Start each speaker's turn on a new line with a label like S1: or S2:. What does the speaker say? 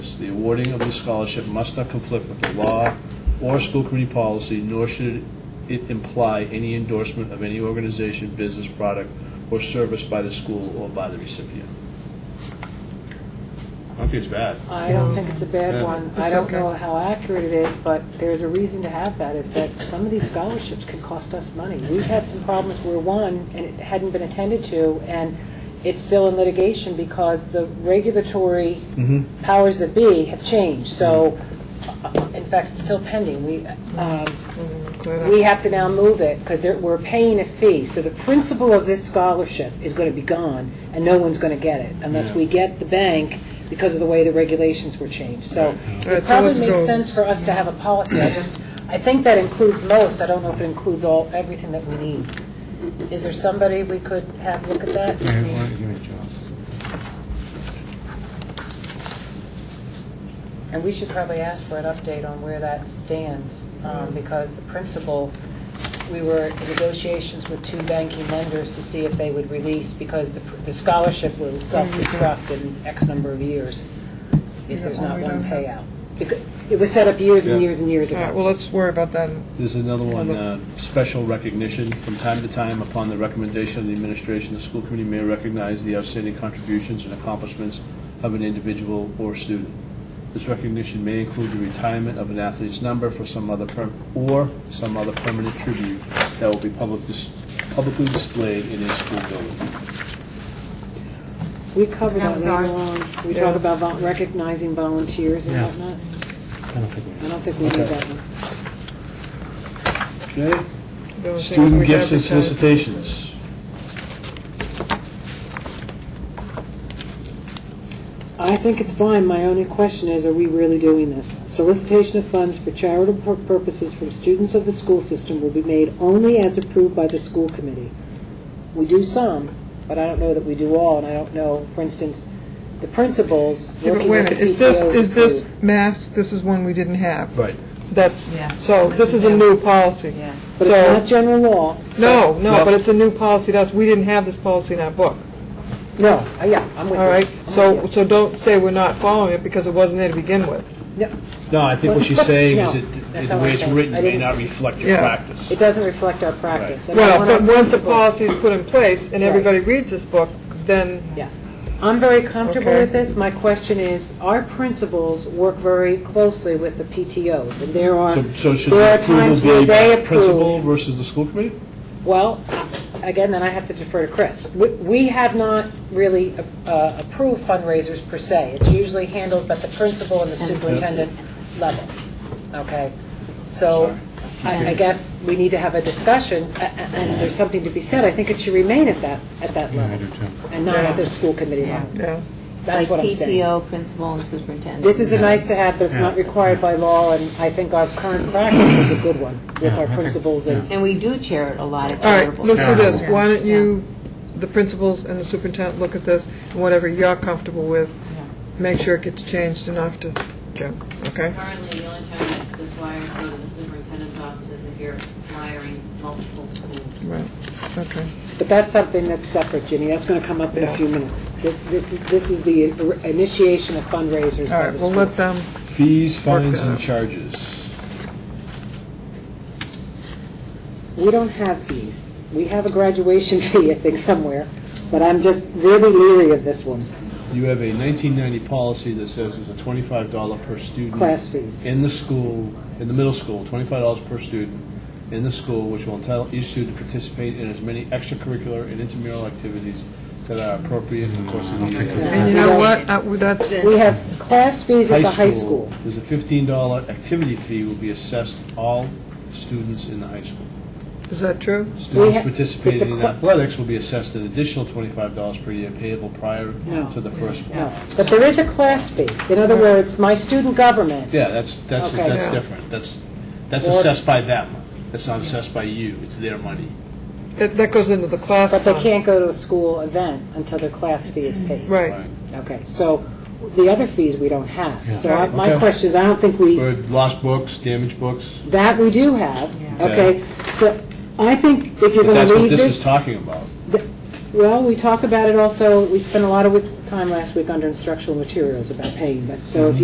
S1: the awarding of the scholarship must not conflict with the law or school committee policy, nor should it imply any endorsement of any organization, business, product, or service by the school or by the recipient. I don't think it's bad.
S2: I don't think it's a bad
S1: Yeah.
S2: one. I
S3: It's
S2: don't
S3: okay.
S2: know how accurate it is, but there's a reason to have that, is that some of these scholarships can cost us money. We've had some problems where one, and it hadn't been attended to, and it's still in litigation because the regulatory
S1: Mhm.
S2: powers that be have changed. So, uh, in fact, it's still pending. We, um,
S3: uh,
S2: we have to now move it because we're paying a fee. So the principle of this scholarship is going to be gone, and no one's going to get it unless we get the bank because of the way the regulations were changed. So
S3: All right,
S2: it
S3: so
S2: probably
S3: let's
S2: makes
S3: go.
S2: sense for us to have a policy. I just, I think that includes most. I don't know if it includes all, everything that we need. Is there somebody we could have look at that? And we should probably ask for an update on where that stands,
S4: Mm-hmm.
S2: um, because the principal, we were in negotiations with two banking lenders to see if they would release, because the the scholarship will self-destruct in X number of years if
S3: Yeah,
S2: there's
S3: well,
S2: not
S3: we
S2: one
S3: don't have-
S2: payout. Because It was set up years and
S1: Yeah.
S2: years and years
S3: All right,
S2: ago.
S3: uh, well, let's worry about that.
S1: There's another one,
S3: Other-
S1: uh, special recognition. From time to time, upon the recommendation of the administration, the school committee may recognize the outstanding contributions and accomplishments of an individual or student. This recognition may include the retirement of an athlete's number for some other, per- or some other permanent tribute that will be public dis- publicly displayed in a school building.
S2: We cover
S4: That
S2: that
S4: was
S2: later
S4: ours.
S2: on. We
S3: Yeah.
S2: talk about vol- recognizing volunteers and whatnot. I don't think we need that one.
S1: Okay?
S3: The only thing is uh, we
S1: Student gifts and
S3: advertise-
S1: solicitations.
S2: I think it's fine. My only question is, are we really doing this? Solicitation of funds for charitable pur- purposes from students of the school system will be made only as approved by the school committee. We do some, but I don't know that we do all, and I don't know, for instance, the principals
S3: Yeah, but
S2: working
S3: wait a
S2: with the
S3: minute, is this,
S2: PTOs
S3: is this
S2: approve.
S3: mass, this is one we didn't have?
S1: Right.
S3: That's,
S4: Yeah.
S3: so this is a new policy.
S4: Yeah.
S2: But it's
S3: So,
S2: not general law.
S3: no, no,
S1: No.
S3: but it's a new policy to us, we didn't have this policy in our book,
S2: No, uh, yeah, I'm with you.
S3: all right?
S2: I'm with
S3: So,
S2: you.
S3: so don't say we're not following it, because it wasn't there to begin with.
S2: No,
S1: No, I think what she's saying is
S2: No,
S1: that
S2: that's
S1: the
S2: not what
S1: way
S2: I'm
S1: it's
S2: saying.
S1: written
S2: I
S1: may
S2: didn't
S1: not
S2: s-
S1: reflect your
S3: Yeah.
S1: practice.
S2: It doesn't reflect our practice. And I
S3: Well,
S2: want our
S3: but once a
S2: principals-
S3: policy is put in place, and everybody reads this book, then
S2: Yeah. I'm very comfortable
S3: Okay.
S2: with this. My question is, our principals work very closely with the PTOs, and there are,
S1: So- So should
S2: there
S1: the
S2: are times
S1: approval
S2: where
S1: be
S2: they
S1: by principal
S2: approve.
S1: versus the school committee?
S2: Well, again, then I have to defer to Chris. We- We have not really uh, approved fundraisers per se. It's usually handled by the principal and the superintendent level, okay? So I I guess we need to have a discussion, a- a- and there's something to be said. I think it should remain at that, at that level. And not at the school committee level.
S3: Yeah,
S2: That's what I'm saying.
S4: Like PTO, principal, and superintendent.
S2: This is a nice to have, but it's not required by law, and I think our current practice is a good one with our principals and,
S4: And we do chair a lot of
S3: all right,
S4: charitable.
S3: let's do this,
S4: Yeah.
S3: why don't you, the principals and the superintendent, look at this, and whatever you're comfortable with, make sure it gets changed enough to, Jim, okay?
S5: Currently, the only time that the flyers go to the superintendent's office is if you're flyering multiple schools.
S3: Right, okay.
S2: but that's something that's separate, Ginny, that's going to come up in a few minutes. Th- This is, this is the initiation of fundraisers
S3: All
S2: by
S3: right,
S2: the
S3: we'll
S2: school.
S3: let them,
S1: Fees, fines,
S3: that
S1: and
S3: out.
S1: charges.
S2: We don't have fees. We have a graduation fee, I think, somewhere, but I'm just really leery of this one,
S1: You have a 1990 policy that says it's a $25 per student.
S2: class fees.
S1: In the school, in the middle school, $25 per student in the school, which will entitle each student to participate in as many extracurricular and intramural activities that are appropriate in the course of the year.
S3: and you know what, Uh, that's,
S2: We have class fees at the high school.
S1: There's a $15 activity fee will be assessed to all students in the high school.
S3: is that true?
S2: We ha-
S1: Students
S2: it's a
S1: participating in
S2: cl-
S1: athletics will be assessed an additional $25 per year payable prior
S2: No.
S1: to the first one.
S2: No, but there is a class fee. In other words, my student government
S1: Yeah, that's, that's,
S2: Okay.
S1: that's
S3: Yeah.
S1: different. That's, that's
S2: Or-
S1: assessed by them. That's not assessed by you. It's their money.
S3: That that goes into the class.
S2: But they
S3: fund.
S2: can't go to a school event until their class fee is paid.
S3: Right,
S2: Okay, so the other fees we don't have. So I- my
S1: Okay.
S2: question is, I don't think we,
S1: Or lost books, damaged books.
S2: that we do have,
S1: Yeah.
S2: okay? So I think if
S1: But
S2: you're going
S1: that's
S2: to
S1: what
S2: leave
S1: this is
S2: this,
S1: talking about.
S2: well, we talk about it also, we spent a lot of wi- time last week under instructional materials about paying, but so if you